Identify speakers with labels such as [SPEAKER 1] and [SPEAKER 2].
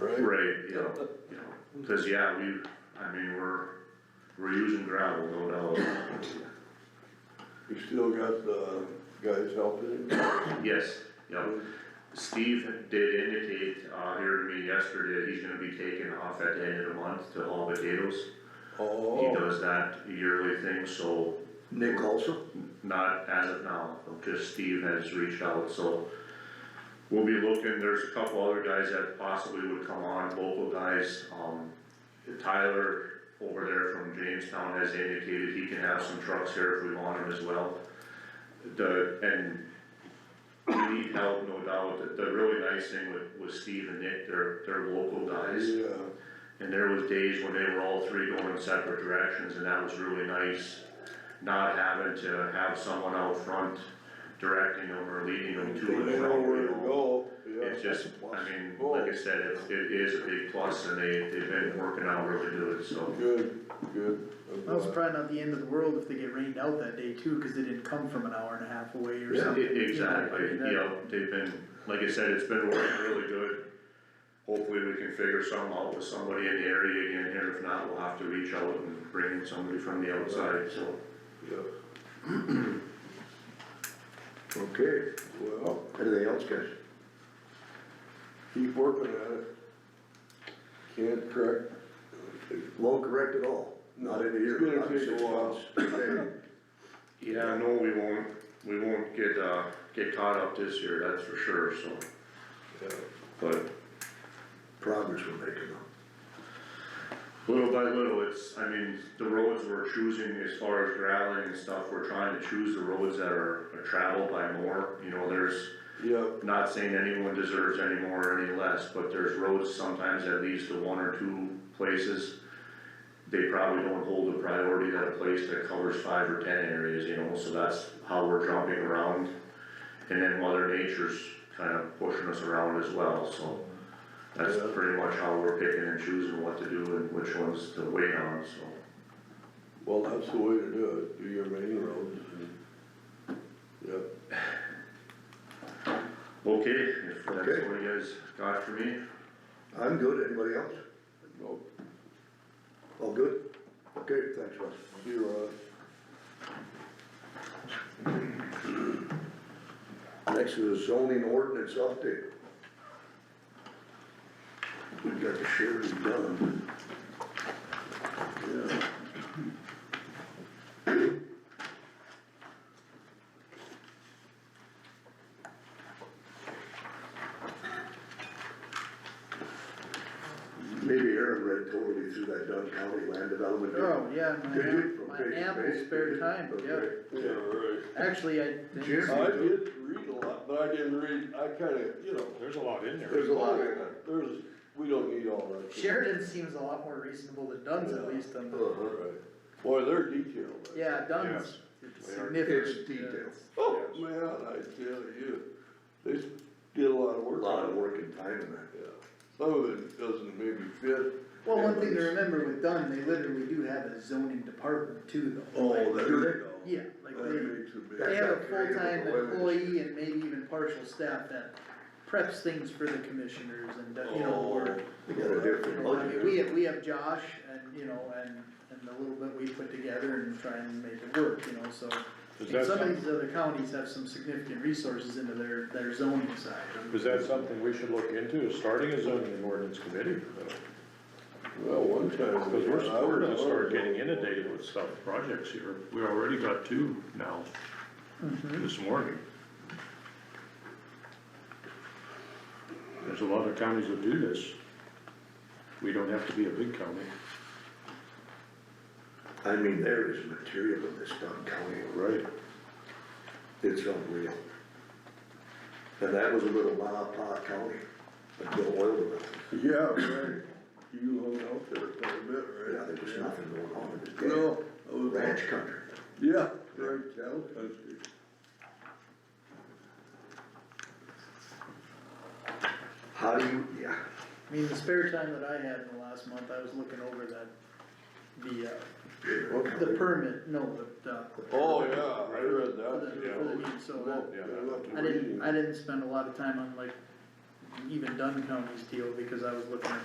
[SPEAKER 1] Right, yeah, yeah, cause yeah, we, I mean, we're, we're using gravel, no doubt.
[SPEAKER 2] You still got the guys helping?
[SPEAKER 1] Yes, yeah, Steve did indicate, uh, here to me yesterday, that he's gonna be taking off at the end of the month to haul potatoes. He
[SPEAKER 2] Oh,
[SPEAKER 1] does that yearly thing, so
[SPEAKER 2] Nick also?
[SPEAKER 1] not as of now, just Steve has reached out, so. We'll be looking, there's a couple other guys that possibly would come on, local guys, um, Tyler over there from Jamestown has indicated he can have some trucks here if we want him as well. The, and we need help, no doubt, the, the really nice thing with, with Steve and Nick, they're, they're local guys.
[SPEAKER 2] Yeah.
[SPEAKER 1] And there was days when they were all three going in separate directions, and that was really nice, not having to have someone out front directing them or leading them
[SPEAKER 2] They
[SPEAKER 1] to and
[SPEAKER 2] know
[SPEAKER 1] from,
[SPEAKER 2] where
[SPEAKER 1] you
[SPEAKER 2] to
[SPEAKER 1] know.
[SPEAKER 2] go, yeah.
[SPEAKER 1] It's just,
[SPEAKER 2] that's a
[SPEAKER 1] I
[SPEAKER 2] plus.
[SPEAKER 1] mean,
[SPEAKER 2] Oh,
[SPEAKER 1] like I said, it, it is a big plus, and they, they've been working out really good, so.
[SPEAKER 2] Good, good. I'm
[SPEAKER 3] That was
[SPEAKER 2] glad.
[SPEAKER 3] probably not the end of the world if they get rained out that day too, cause they didn't come from an hour and a half away or
[SPEAKER 1] E-
[SPEAKER 3] something. you know, I
[SPEAKER 1] Exactly,
[SPEAKER 3] mean, that-
[SPEAKER 1] yeah, they've been, like I said, it's been working really good. Hopefully, we can figure something out with somebody in the area again here, if not, we'll have to reach out and bring in somebody from the outside, so.
[SPEAKER 2] Yeah. Okay, well,
[SPEAKER 4] Anything else, guys?
[SPEAKER 2] keep working at it. Can't correct.
[SPEAKER 4] Won't correct at all, not in a year,
[SPEAKER 2] It's gonna
[SPEAKER 4] not in
[SPEAKER 2] take a
[SPEAKER 4] six
[SPEAKER 2] while.
[SPEAKER 4] months. Okay.
[SPEAKER 1] Yeah, no, we won't, we won't get, uh, get caught up this year, that's for sure, so,
[SPEAKER 2] Yeah.
[SPEAKER 1] but
[SPEAKER 4] Progress we're making though.
[SPEAKER 1] little by little, it's, I mean, the roads we're choosing as far as graveling and stuff, we're trying to choose the roads that are are traveled by more, you know, there's,
[SPEAKER 2] Yeah,
[SPEAKER 1] not saying anyone deserves any more or any less, but there's roads sometimes that leads to one or two places. They probably don't hold the priority that a place that covers five or ten areas, you know, so that's how we're jumping around. And then mother nature's kind of pushing us around as well, so that's
[SPEAKER 2] Yeah.
[SPEAKER 1] pretty much how we're picking and choosing what to do and which ones to wait on, so.
[SPEAKER 2] well, that's the way to do it, do your main roads and, yeah.
[SPEAKER 1] Okay, if that's
[SPEAKER 4] Okay.
[SPEAKER 1] what you guys got for me,
[SPEAKER 4] I'm good, anybody else?
[SPEAKER 2] Nope.
[SPEAKER 4] All good? Okay, thanks, Russ.
[SPEAKER 2] You're right.
[SPEAKER 4] Next is zoning ordinance update. We've got the sheriff done. Yeah. Maybe Aaron read totally through that Dunn County land development. didn't
[SPEAKER 3] Oh, yeah, my,
[SPEAKER 4] Did you?
[SPEAKER 3] am- my
[SPEAKER 4] Okay,
[SPEAKER 3] ample
[SPEAKER 4] okay,
[SPEAKER 3] spare
[SPEAKER 4] okay,
[SPEAKER 3] time, yeah,
[SPEAKER 4] okay.
[SPEAKER 2] Yeah, right.
[SPEAKER 3] actually, I
[SPEAKER 4] Jim?
[SPEAKER 3] didn't,
[SPEAKER 2] I did read a lot, but I didn't read, I kinda, you know,
[SPEAKER 5] There's a lot in there.
[SPEAKER 4] There's a lot in there.
[SPEAKER 2] there's, we don't need all that.
[SPEAKER 3] Sheridan seems a lot more reasonable than Dunn's at
[SPEAKER 2] Yeah.
[SPEAKER 3] least on the,
[SPEAKER 4] Uh-huh.
[SPEAKER 2] Right. Boy, they're detailed. right?
[SPEAKER 3] yeah, Dunn's
[SPEAKER 5] They are-
[SPEAKER 3] significant.
[SPEAKER 4] It's
[SPEAKER 3] yeah.
[SPEAKER 4] detailed.
[SPEAKER 2] Oh, man, I tell you, they s- did a lot of
[SPEAKER 4] A
[SPEAKER 2] work
[SPEAKER 4] lot of
[SPEAKER 2] on it.
[SPEAKER 4] work and time in that.
[SPEAKER 2] Yeah, some of it doesn't maybe fit.
[SPEAKER 3] Well, one
[SPEAKER 2] and
[SPEAKER 3] thing to
[SPEAKER 2] it's-
[SPEAKER 3] remember with Dunn, they literally do have a zoning department too, though.
[SPEAKER 2] Oh,
[SPEAKER 3] Like,
[SPEAKER 2] there
[SPEAKER 4] Do
[SPEAKER 2] you
[SPEAKER 4] they?
[SPEAKER 2] go.
[SPEAKER 3] Yeah, like
[SPEAKER 2] That
[SPEAKER 3] they,
[SPEAKER 2] makes a big.
[SPEAKER 3] they
[SPEAKER 4] That's
[SPEAKER 3] have a
[SPEAKER 4] not creative
[SPEAKER 3] full-time
[SPEAKER 4] for women.
[SPEAKER 3] employee and maybe even partial staff that preps things for the commissioners and, you know,
[SPEAKER 4] Oh.
[SPEAKER 3] or.
[SPEAKER 4] They got a different
[SPEAKER 3] I mean, we
[SPEAKER 4] budget.
[SPEAKER 3] have, we have Josh and, you know, and, and the little bit we put together and try and make it work, you know, so.
[SPEAKER 5] Is
[SPEAKER 3] And
[SPEAKER 5] that
[SPEAKER 3] some of
[SPEAKER 5] some-
[SPEAKER 3] these other counties have some significant resources into their, their zoning side.
[SPEAKER 5] Is that something we should look into, is starting a zoning and ordinance committee? uh, Oh,
[SPEAKER 2] Well, one time.
[SPEAKER 5] Because we're,
[SPEAKER 2] I
[SPEAKER 5] we're
[SPEAKER 2] was-
[SPEAKER 5] gonna start getting inundated with stuff, projects here. We already got two now, this morning. There's a lot of counties that do this. We don't have to be a big county.
[SPEAKER 4] I mean, there is material in this Dunn County,
[SPEAKER 5] Right.
[SPEAKER 4] it's unreal. And that was a little ma pa county, until oil development,
[SPEAKER 2] Yeah, right, you hung out there quite a bit, right?
[SPEAKER 4] yeah, there was nothing going on in this damn
[SPEAKER 2] No, I was-
[SPEAKER 4] ranch country.
[SPEAKER 2] yeah, right, cattle country.
[SPEAKER 4] How do you, yeah,
[SPEAKER 3] I mean, the spare time that I had in the last month, I was looking over that, the, uh,
[SPEAKER 4] what
[SPEAKER 3] the
[SPEAKER 4] county?
[SPEAKER 3] permit, no, the, uh,
[SPEAKER 2] Oh, yeah, I read
[SPEAKER 3] for
[SPEAKER 2] that.
[SPEAKER 3] the, for the deed, so that,
[SPEAKER 2] Well, I love to
[SPEAKER 3] I
[SPEAKER 2] read.
[SPEAKER 3] didn't, I didn't spend a lot of time on like even Dunn County's deal because I was looking at